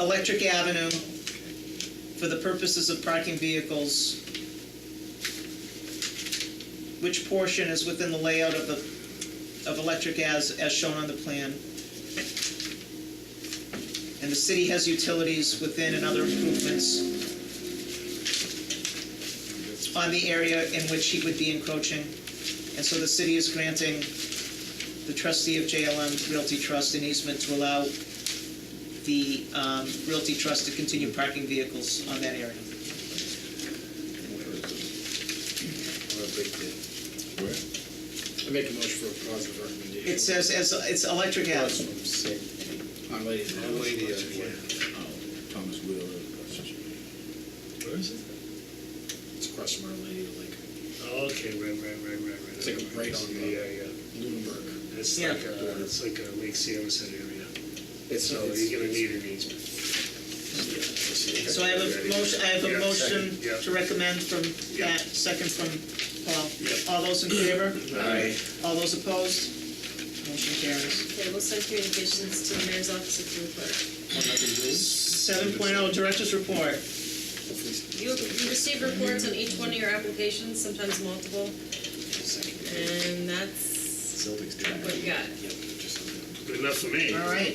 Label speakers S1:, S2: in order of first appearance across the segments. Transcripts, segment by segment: S1: Electric Avenue for the purposes of parking vehicles. Which portion is within the layout of the, of Electric as, as shown on the plan? And the city has utilities within and other improvements on the area in which he would be encroaching. And so the city is granting the trustee of JLM Realty Trust an easement to allow the um, Realty Trust to continue parking vehicles on that area.
S2: I make a motion for a positive recommendation.
S1: It says, as- it's Electric Ave.
S2: On Lady. Oh,
S3: On Lady Ave, yeah.
S4: Thomas Wheeler.
S3: Where is it?
S2: It's across from Our Lady of Lake.
S3: Okay, right, right, right, right, right.
S2: It's like a right on the-
S3: Yeah, yeah.
S2: Lunenburg.
S3: It's
S1: Yeah.
S3: like, uh, it's like a Lake Samuelson area.
S2: It's,
S3: So you're gonna need an easement.
S1: So I have a motion, I have a
S3: Yeah,
S1: motion
S3: second, yeah.
S1: to recommend from
S3: Yeah.
S1: Pat, second from
S3: Yeah.
S1: Paul. All those in favor?
S3: Aye.
S1: All those opposed? Motion carries.
S5: Okay, we'll send communications to the mayor's office and to the clerk.
S1: Seven oh, Director's Report.
S5: You, you receive reports on each one of your applications, sometimes multiple, and that's what you got.
S3: Good enough for me.
S1: All right.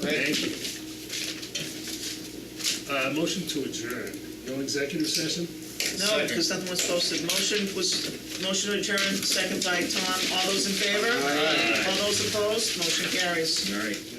S3: Thank you. Uh, motion to adjourn. No executive session?
S1: No, because nothing was posted. Motion was, motion to adjourn, second by Tom. All those in favor? All those opposed? Motion carries.
S4: All right.